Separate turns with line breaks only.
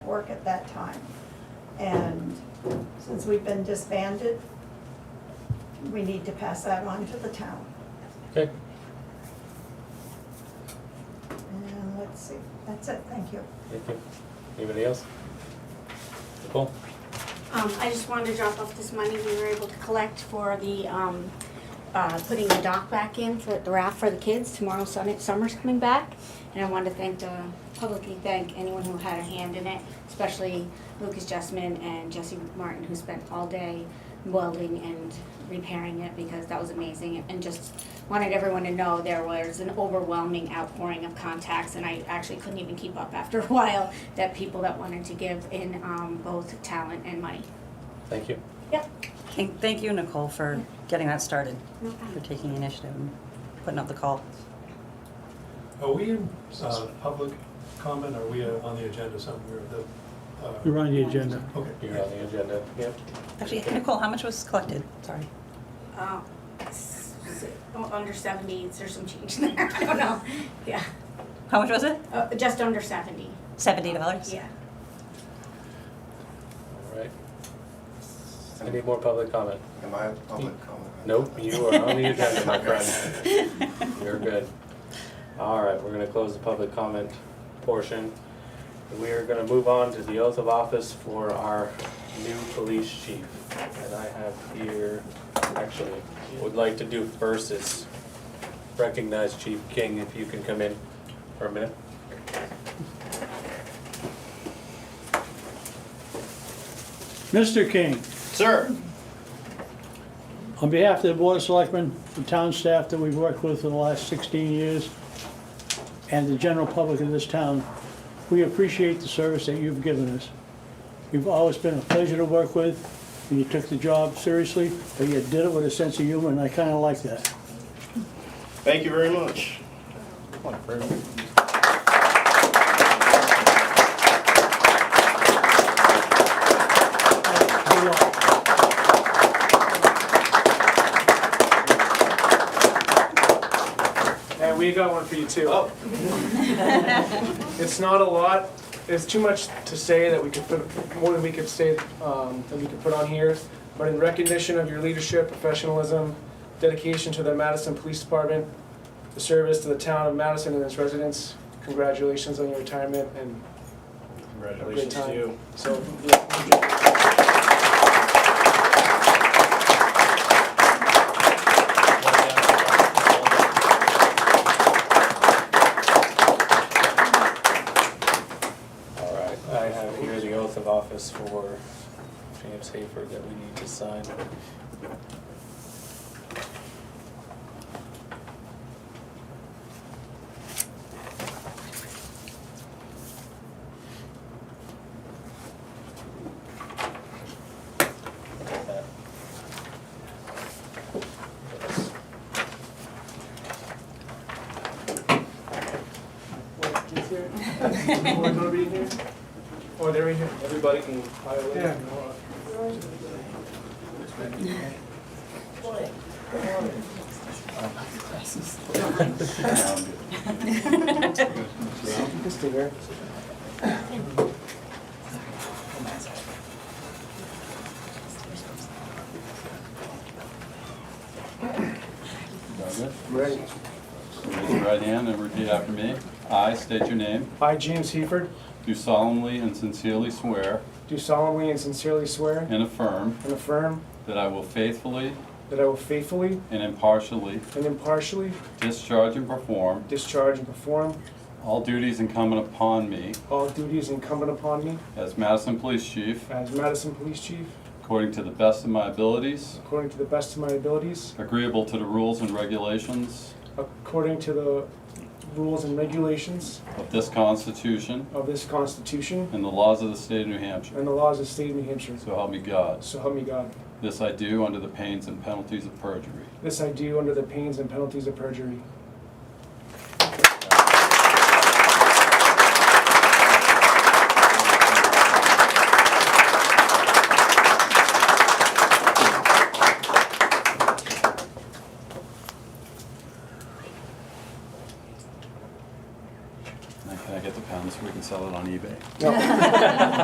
work at that time. And since we've been disbanded, we need to pass that on to the town.
Okay,
And let's see, that's it, thank you.
thank you. Anybody else? Nicole?
Um, I just wanted to drop off this money we were able to collect for the, um, uh, putting the dock back in for the raft for the kids. Tomorrow, Sunday, summer's coming back. And I wanted to thank, uh, publicly thank anyone who had a hand in it, especially Lucas Jessman and Jesse Martin, who spent all day welding and repairing it because that was amazing. And just wanted everyone to know there was an overwhelming outpouring of contacts and I actually couldn't even keep up after a while that people that wanted to give in, um, both talent and money.
Thank you.
Yep.
Thank thank you, Nicole, for getting that started,
No
for
problem.
taking the initiative and putting up the call.
Are we in uh, public comment, are we uh, on the agenda somewhere? The, uh,
You're on the agenda.
You're on
Okay.
the agenda. Yep.
Actually, Nicole, how much was collected? Sorry.
Uh, s- s- oh, under seventy, there's some change in there, I don't know, yeah,
How much was it?
uh, just under seventy,
Seventy dollars?
yeah.
All right. Any more public comment?
Am I a public comment?
Nope, you are on the agenda, my friend. You're good. All right, we're gonna close the public comment portion. We are gonna move on to the oath of office for our new police chief. And I have here, actually, would like to do first is recognize Chief King, if you can come in for a minute.
Mr. King,
Sir,
on behalf of the Board of Selectmen, the town staff that we've worked with for the last 16 years, and the general public of this town, we appreciate the service that you've given us. You've always been a pleasure to work with, and you took the job seriously, but you did it with a sense of humor, and I kind of like that.
thank you very much.
Good luck.
And we got one for you too.
Oh.
It's not a lot, there's too much to say that we could put, more than we could say, um, that we could put on here. But in recognition of your leadership, professionalism, dedication to the Madison Police Department, the service to the town of Madison and its residents, congratulations on your retirement and have a great
Congratulations
time.
to you.
So, yeah.
All right, I have here the oath of office for James Hayford that we need to sign.
What, is there- Or nobody in here? Or Oh, they're in here?
Everybody can
By the way,
Yeah.
Nora. Mr. Ware.
Right.
Raise your right hand and repeat after me. I state your name.
I, James Heford,
Do solemnly and sincerely swear
do solemnly and sincerely swear
and affirm
and affirm
that I will faithfully
that I will faithfully
and impartially
and impartially
discharge and perform
discharge and perform
all duties incumbent upon me
all duties incumbent upon me
as Madison Police Chief
as Madison Police Chief
according to the best of my abilities,
according to the best of my abilities,
agreeable to the rules and regulations
according to the rules and regulations
of this Constitution
of this Constitution
and the laws of the state of New Hampshire.
and the laws of the state of New Hampshire.
So help me God.
So help me God.
This I do under the pains and penalties of perjury.
This I do under the pains and penalties of perjury.